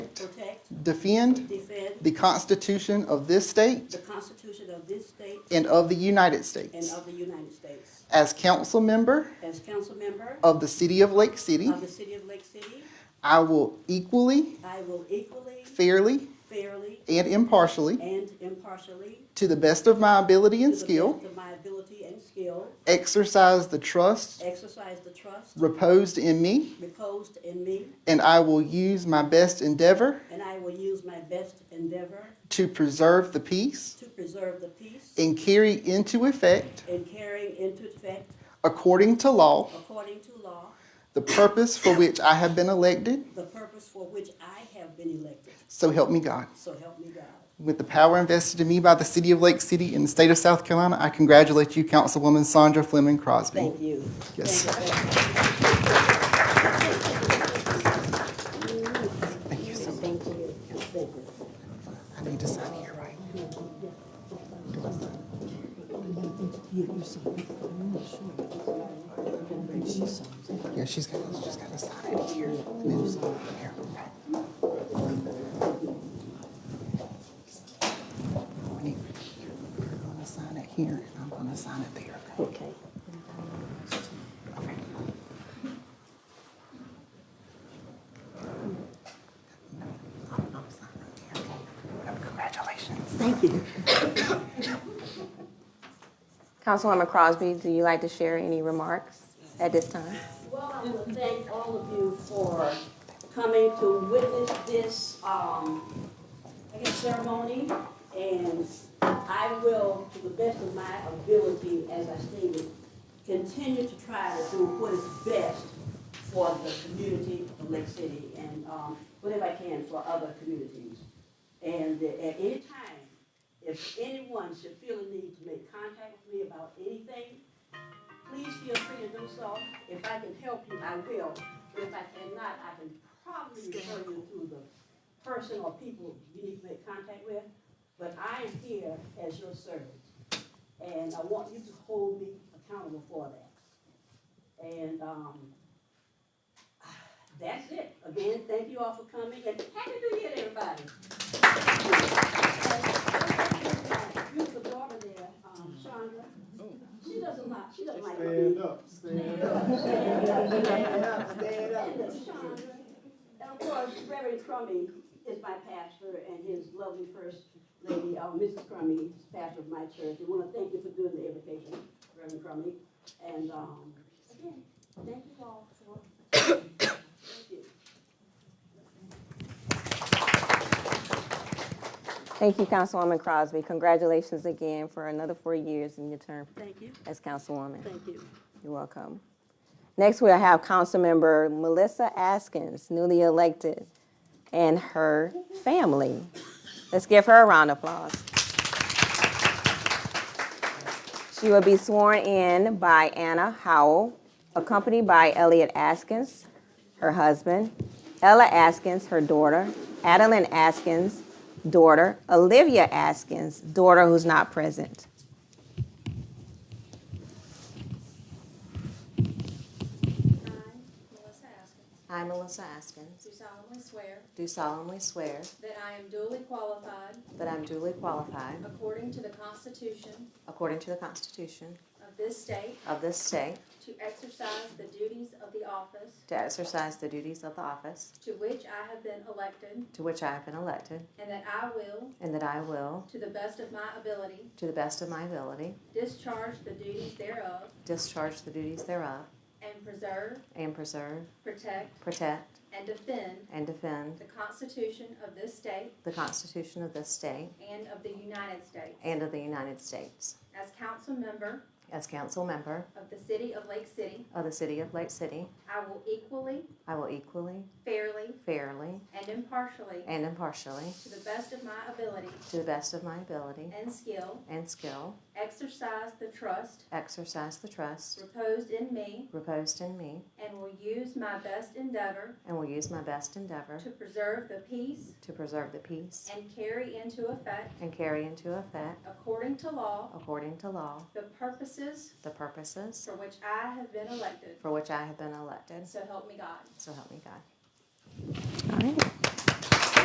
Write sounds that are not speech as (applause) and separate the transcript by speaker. Speaker 1: defend
Speaker 2: defend
Speaker 1: the Constitution of this state
Speaker 2: the Constitution of this state
Speaker 1: and of the United
Speaker 2: and
Speaker 1: States.
Speaker 2: of the United States.
Speaker 1: As council member
Speaker 2: As council member
Speaker 1: of the City of Lake City,
Speaker 2: of the city of Lake City,
Speaker 1: I will equally,
Speaker 2: I will equally,
Speaker 1: fairly,
Speaker 2: fairly,
Speaker 1: and impartially,
Speaker 2: and impartially,
Speaker 1: to the best of my ability
Speaker 2: to
Speaker 1: and
Speaker 2: the
Speaker 1: skill,
Speaker 2: best of my ability and skill,
Speaker 1: exercise the trust
Speaker 2: exercise the trust
Speaker 1: reposed in me,
Speaker 2: reposed in me,
Speaker 1: and I will use my best endeavor
Speaker 2: and I will use my best endeavor
Speaker 1: to preserve the peace
Speaker 2: to preserve the peace
Speaker 1: and carry into effect,
Speaker 2: and carrying into effect,
Speaker 1: according to law,
Speaker 2: according to law,
Speaker 1: the purpose for which I have been elected.
Speaker 2: the purpose for which I have been elected.
Speaker 1: So help me God.
Speaker 2: So help me God.
Speaker 1: With the power invested in me by the City of Lake City and the State of South Carolina, I congratulate you, Councilwoman Sandra Fleming Crosby.
Speaker 2: Thank you.
Speaker 1: Yes.
Speaker 2: Thank you.
Speaker 1: Thank you so much. I need to sign here, right? Yeah, she's got, she's got to sign it here. and then sign it here. We need- You're gonna sign it here, and I'm gonna sign it there, okay?
Speaker 2: Okay.
Speaker 1: I'm I'm signing it here, oh, okay? Congratulations.
Speaker 2: Thank you.
Speaker 3: Councilwoman Crosby, do you like to share any remarks at this time?
Speaker 2: Well, I want to thank all of you for coming to witness this, um, I guess ceremony. And I will, to the best of my ability, as I stated, continue to try to do what is best for the community of Lake City and, um, whatever I can for other communities. And at any time, if anyone should feel a need to make contact with me about anything, please feel free to do so. If I can help you, I will. If I cannot, I can probably refer you to the person or people you need to make contact with. But I am here as your servant, and I want you to hold me accountable for that. And, um, that's it. Again, thank you all for coming, and happy new year to everybody. You the daughter there, um, Chandra. She doesn't like, she doesn't like. Stand up, stand up. Stand up, (laughs) stand up, stand up. Chandra. And of course, Reverend Crummy is my pastor and his lovely first lady, uh, Mrs. Crummy, is pastor of my church. And want to thank you for doing the invitation, Reverend Crummy. And, um, again, thank you all for. (coughs) Thank you.
Speaker 3: Thank you, Councilwoman Crosby. Congratulations again for another four years in your term
Speaker 2: Thank you,
Speaker 3: as councilwoman.
Speaker 2: thank you.
Speaker 3: You're welcome. Next, we'll have Councilmember Melissa Askins, newly elected, and her family. Let's give her a round of applause. She will be sworn in by Anna Howell, accompanied by Elliot Askins, her husband, Ella Askins, her daughter, Adeline Askins, daughter, Olivia Askins, daughter who's not present.
Speaker 4: I, Melissa Askins,
Speaker 5: I, Melissa Askins,
Speaker 4: do solemnly swear
Speaker 5: do solemnly swear
Speaker 4: that I am duly qualified,
Speaker 5: that I am duly qualified,
Speaker 4: according to the Constitution
Speaker 5: according to the Constitution
Speaker 4: of this state,
Speaker 5: of this state,
Speaker 4: to exercise the duties of the office
Speaker 5: to exercise the duties of the office
Speaker 4: to which I have been elected,
Speaker 5: to which I have been elected,
Speaker 4: and that I will,
Speaker 5: and that I will,
Speaker 4: to the best of my ability,
Speaker 5: to the best of my ability,
Speaker 4: discharge the duties thereof,
Speaker 5: discharge the duties thereof,
Speaker 4: and preserve,
Speaker 5: and preserve,
Speaker 4: protect,
Speaker 5: protect,
Speaker 4: and defend
Speaker 5: and defend
Speaker 4: the Constitution of this state
Speaker 5: the Constitution of this state
Speaker 4: and of the United States.
Speaker 5: and of the United States.
Speaker 4: As council member
Speaker 5: As council member
Speaker 4: of the City of Lake City,
Speaker 5: of the City of Lake City,
Speaker 4: I will equally,
Speaker 5: I will equally,
Speaker 4: fairly,
Speaker 5: fairly,
Speaker 4: and impartially
Speaker 5: and impartially,
Speaker 4: To the best of my ability
Speaker 5: to the best of my ability
Speaker 4: and skill,
Speaker 5: and skill,
Speaker 4: exercise the trust
Speaker 5: exercise the trust
Speaker 4: reposed in me
Speaker 5: reposed in me,
Speaker 4: and will use my best endeavor
Speaker 5: and will use my best endeavor
Speaker 4: to preserve the peace
Speaker 5: to preserve the peace
Speaker 4: and carry into effect,
Speaker 5: and carry into effect,
Speaker 4: according to law,
Speaker 5: according to law,
Speaker 4: the purposes
Speaker 5: the purposes
Speaker 4: for which I have been elected.
Speaker 5: for which I have been elected.
Speaker 4: So help me God.
Speaker 5: So help me God.
Speaker 3: All right.